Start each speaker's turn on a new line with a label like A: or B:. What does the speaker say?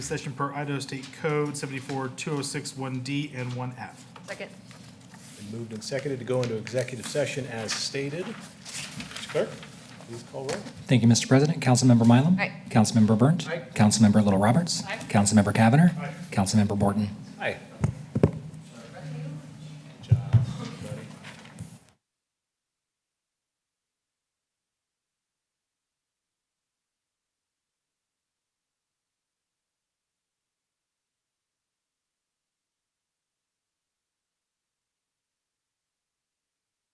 A: session per Idaho State Code 742061D and 1F.
B: Second.
C: Been moved and seconded to go into executive session as stated. Mr. Clerk, please call roll.
D: Thank you, Mr. President. Councilmember Mylum?
B: Aye.
D: Councilmember Burnt?
C: Aye.
D: Councilmember Little Roberts?
B: Aye.
D: Councilmember Cavanagh? Councilmember Borton?
C: Aye.